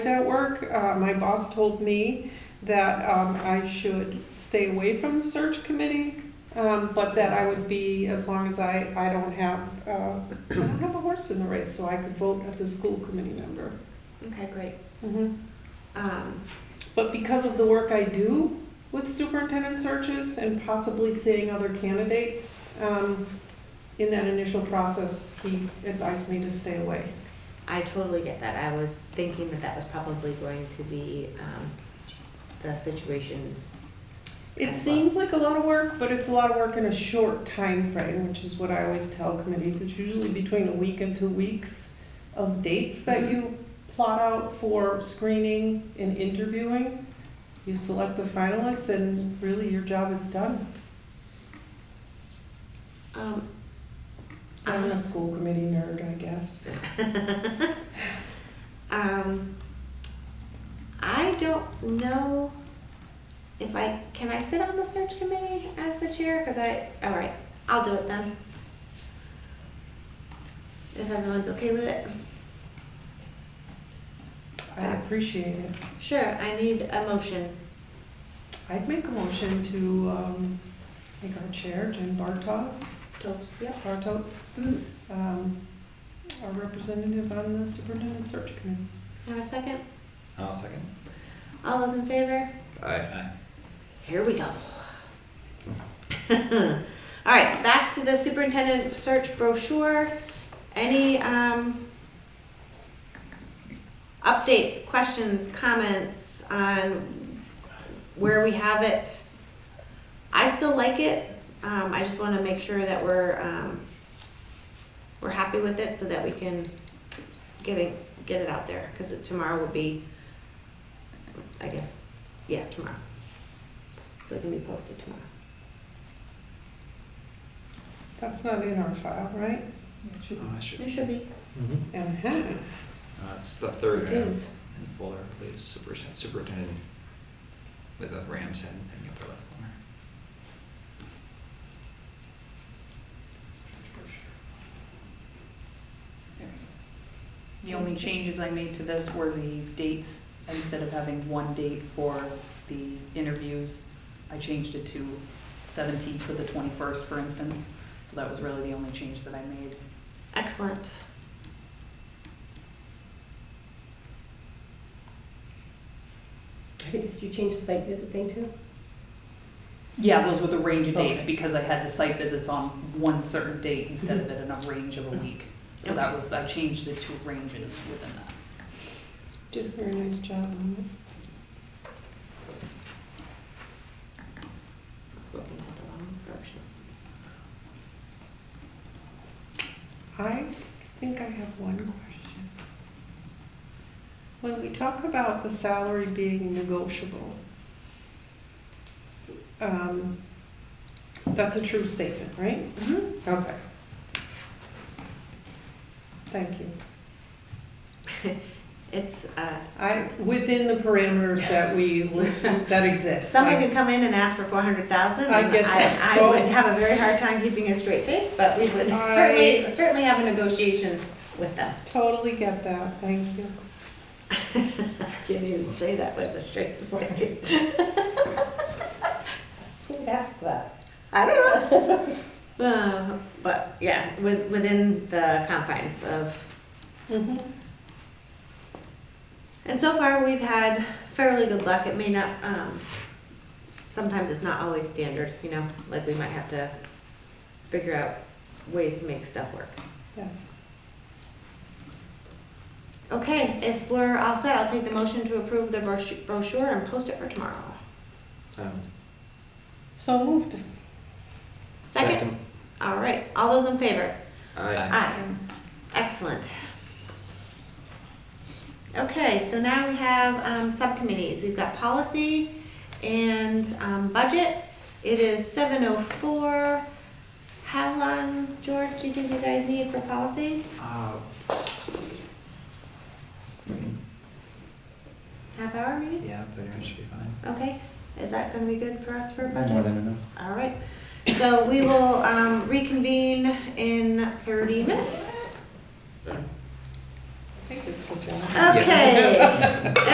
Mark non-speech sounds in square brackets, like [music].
that work. Uh, my boss told me that um, I should stay away from the search committee, um, but that I would be as long as I, I don't have uh, I don't have a horse in the race, so I could vote as a school committee member. Okay, great. Mhm. Um, But because of the work I do with superintendent searches and possibly seeing other candidates um, in that initial process, he advised me to stay away. I totally get that. I was thinking that that was probably going to be, um, the situation. It as seems like a lot of work, but it's a lot of work in a short time frame, which is what I always tell committees. It's usually between a week and two weeks of dates that you plot out for screening and interviewing. You select the finalists and really your job is done. Um, I'm a school committee nerd, I guess. um, I don't know if I, can I sit on the search committee as the chair? Cause I, all right, I'll do it then. If everyone's okay with it. I appreciate it. Sure, I need a motion. I'd make a motion to um, make our chair, Jen Bartos, Toast, yep. Bartos, Mm. um, our representative on the superintendent search committee. Have a second? I'll second. All those in favor? Aye. Aye. Here we go. [laughs] All right, back to the superintendent search brochure. Any, um, updates, questions, comments on where we have it? I still like it. Um, I just want to make sure that we're, um, we're happy with it so that we can get it, get it out there. Because tomorrow will be, I guess, yeah, tomorrow so it can be posted tomorrow. That's not in our file, right? Oh, I should. It should be. Uh-huh. Uh, it's the third It round is. in Fuller, I believe, superintendent, superintendent with a ram's head in the upper left corner. The only changes I made to this were the dates, instead of having one date for the interviews, I changed it to seventeenth to the twenty-first, for instance. So that was really the only change that I made. Excellent. Did you change the site visit thing too? Yeah, those were the range of dates, Okay. because I had the site visits on one certain date instead of it in a range of a week. So that was, I changed the two ranges within that. [laughs] Did a very nice job on it. I was looking at the wrong version. I think I have one question. When we talk about the salary being negotiable, um, that's a true statement, right? Okay. Thank you. It's, uh, I, within the parameters that [laughs] we, li- that exist. someone could come in and ask for four hundred thousand. I get that. I, I would have a very hard time keeping a straight face, but we would I- certainly, certainly have a negotiation with them. Totally get that, thank you. I can't even say that with a [laughs] straight face. Who would ask for that? I don't know. [laughs] Uh, But, yeah, with, within the confines of Mhm. And so far, we've had fairly good luck. It may not, um, sometimes it's not always standard, you know, like we might have to figure out ways to make stuff work. Yes. Okay, if we're all set, I'll take the motion to approve the brochu- brochure and post it for tomorrow. Um, So moved. Second? All right, all those in favor? Aye. Aye. Excellent. Okay, so now we have um, subcommittees. We've got policy and um, budget. It is 7:04. How long, George, do you think you guys need for policy? Uh, Half hour maybe? yeah, but it should be fine. Okay, is that going to be good for us for budget? More than enough. All right, so we will um, reconvene in 30 minutes. I think it's been job. Yes. Okay.